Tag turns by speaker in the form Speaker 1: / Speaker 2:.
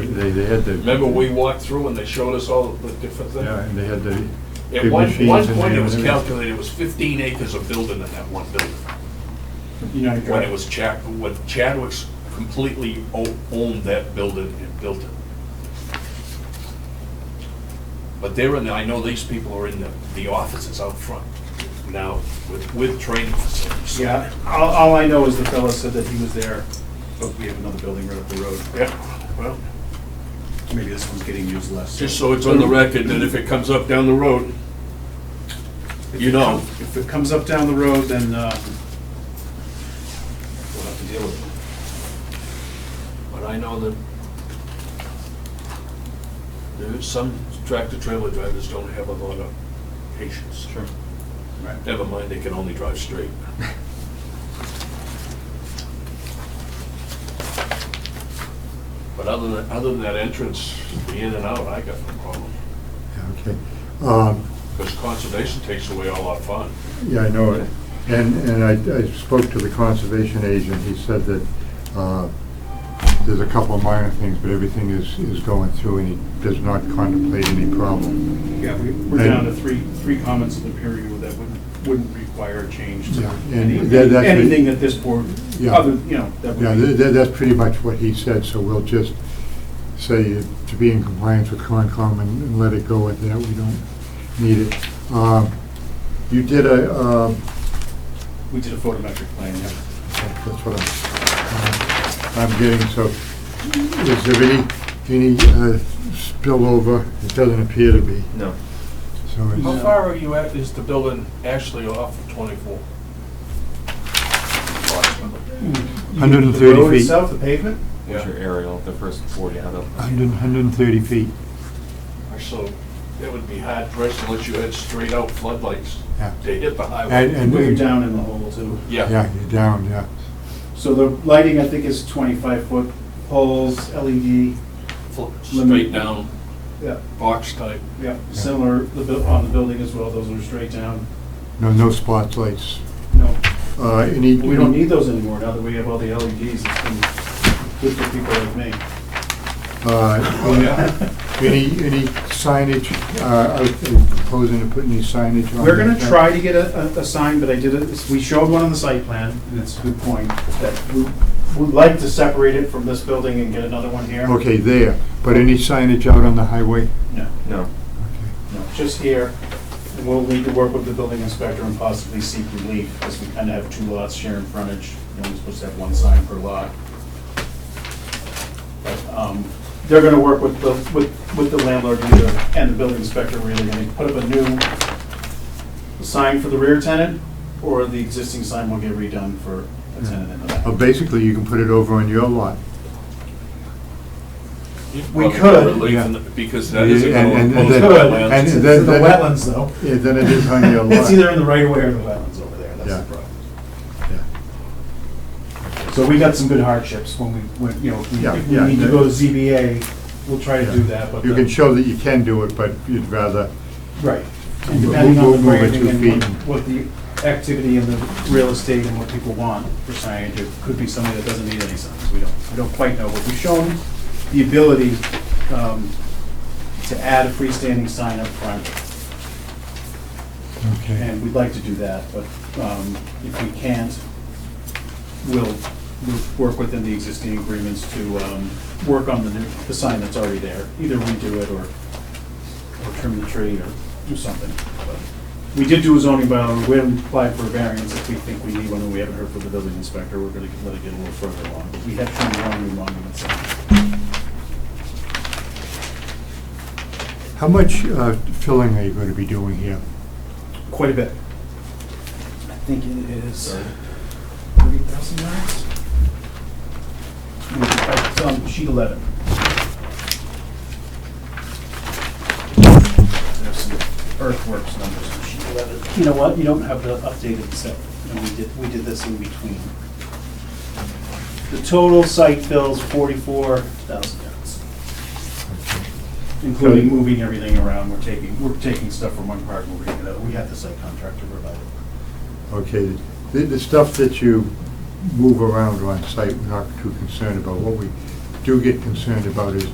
Speaker 1: They, they had the.
Speaker 2: Remember, we walked through and they showed us all the different
Speaker 1: Yeah,
Speaker 2: things?
Speaker 1: and they had the.
Speaker 2: At
Speaker 1: big
Speaker 2: one,
Speaker 1: machines
Speaker 2: one
Speaker 1: in there
Speaker 2: point, it
Speaker 1: and
Speaker 2: was
Speaker 1: everything.
Speaker 2: calculated, it was fifteen acres of building in that one building.
Speaker 3: You know,
Speaker 2: When it was Chad, when Chadwick's completely o- owned that building and built it. But they're in, the- I know these people are in the, the offices out front now with, with training facilities.
Speaker 3: Yeah, all, all I know is the fellow said that he was there, but we have another building right up the road.
Speaker 2: Yeah, well,
Speaker 3: Maybe this one's getting used less.
Speaker 2: just so it's on the record, that if it comes up down the road, you know.
Speaker 3: If it comes up down the road, then, uh, we'll have to deal with it.
Speaker 2: But I know that there is some tractor trailer drivers don't have a lot of patience. Sure.
Speaker 3: Right.
Speaker 2: Never mind, they can only drive straight. But other than, other than that entrance, the in and out, I got no problem.
Speaker 1: Yeah, Okay. Um,
Speaker 2: Because conservation takes away all our fun.
Speaker 1: Yeah, I know it. And, and I, I spoke to the conservation agent, he said that, uh, there's a couple of minor things, but everything is, is going through and he does not contemplate any problem.
Speaker 3: Yeah, we- we're down to three, three comments in the peer review that wouldn't, wouldn't require a change to
Speaker 1: Yeah,
Speaker 3: any-
Speaker 1: and that- that's-
Speaker 3: anything that this board,
Speaker 1: Yeah.
Speaker 3: other, you know, that
Speaker 1: Yeah,
Speaker 3: would
Speaker 1: tha-
Speaker 3: be.
Speaker 1: tha- that's pretty much what he said, so we'll just say to be in compliance with Concom and and let it go at that, we don't need it. Um, You did a, um,
Speaker 3: We did a photometric plan, yeah.
Speaker 1: That's what I'm, I'm getting, so is there any, any uh, spillover? It doesn't appear to be,
Speaker 4: No.
Speaker 1: so
Speaker 2: How
Speaker 1: it's,
Speaker 2: far are you at, is the building actually off of 24? Approximately.
Speaker 1: 130
Speaker 3: The road
Speaker 1: feet.
Speaker 3: itself, the pavement?
Speaker 4: What's your aerial, the first 40 out of?
Speaker 1: 100 130 feet,
Speaker 2: So that would be hard pressed unless you had straight out floodlights
Speaker 1: yeah.
Speaker 2: to hit the
Speaker 1: And,
Speaker 2: highway.
Speaker 1: and.
Speaker 3: We're down in the hole too.
Speaker 2: Yeah,
Speaker 1: Yeah, you're down, yeah.
Speaker 3: So the lighting, I think, is twenty-five foot poles, LED,
Speaker 2: Fl-
Speaker 3: Limit.
Speaker 2: straight down,
Speaker 3: yeah,
Speaker 2: box type.
Speaker 3: yeah, similar, the, bu- on the building as well, those are straight down.
Speaker 1: No, no spotlights.
Speaker 3: No,
Speaker 1: Uh, any.
Speaker 3: we don't need those anymore now that we have all the LEDs, it's been good for people like me.
Speaker 1: Uh, any, any signage, uh, are you proposing to put any signage on?
Speaker 3: We're gonna
Speaker 1: that?
Speaker 3: try to get a, a- a sign, but I did it, we showed one on the site plan, and it's a good point, that we would like to separate it from this building and get another one here.
Speaker 1: Okay, there, but any signage out on the highway?
Speaker 3: No,
Speaker 4: No.
Speaker 3: no, just here, And we'll need to work with the building inspector and possibly seek relief, because we kinda have two lots sharing frontage, and we're supposed to have one sign per lot. But, um, they're gonna work with the, with, with the landlord either, and the building inspector really, and they put up a new sign for the rear tenant, or the existing sign will get redone for a tenant in the back.
Speaker 1: Uh, basically, you can put it over on your lot.
Speaker 3: We could,
Speaker 1: yeah.
Speaker 2: Because that is a
Speaker 1: Yeah, and- and- and
Speaker 2: proposed
Speaker 1: then-
Speaker 3: Good,
Speaker 1: and
Speaker 3: it's
Speaker 2: wetland.
Speaker 3: in
Speaker 1: then-
Speaker 3: the
Speaker 1: then-
Speaker 3: wetlands though.
Speaker 1: Yeah, then it is on your lot.
Speaker 3: It's either in the right of way or the wetlands over there, that's
Speaker 1: Yeah.
Speaker 3: the problem.
Speaker 1: Yeah.
Speaker 3: So we got some good hardships when we, when, you know, if we-
Speaker 1: Yeah,
Speaker 3: if we
Speaker 1: yeah,
Speaker 3: need to
Speaker 1: the-
Speaker 3: go to ZBA, we'll try to do that, but.
Speaker 1: You
Speaker 3: the-
Speaker 1: can show that you can do it, but you'd rather,
Speaker 3: Right. And
Speaker 1: We'll-
Speaker 3: depending on
Speaker 1: we'll
Speaker 3: the
Speaker 1: move it
Speaker 3: grading
Speaker 1: two
Speaker 3: and
Speaker 1: feet.
Speaker 3: what- what the activity and the real estate and what people want for signage, it could be something that doesn't need any signs. We don't, we don't quite know. But we've shown the ability um, to add a freestanding sign up front,
Speaker 1: okay,
Speaker 3: and we'd like to do that, but um, if we can't, we'll, we'll work within the existing agreements to um, work on the new, the sign that's already there. Either redo it or, or trim the tree or do something. But We did do a zoning bylaw, we haven't applied for a variance if we think we need one, and we haven't heard from the building inspector, we're gonna let it get a little further along. But We have trimmed one new monument sign.
Speaker 1: how much uh, filling are you going to be doing here?
Speaker 3: Quite a bit. I think it is thirty thousand yards? It's on sheet eleven. There's some earthworks numbers on sheet eleven. You know what, you don't have the updated set, and we did, we did this in between. The total site fills forty-four thousand yards including moving everything around, we're taking, we're taking stuff from one part, moving it out, we had the site contractor provide it.
Speaker 1: Okay, the, the stuff that you move around on site, we're not too concerned about. What we do get concerned about is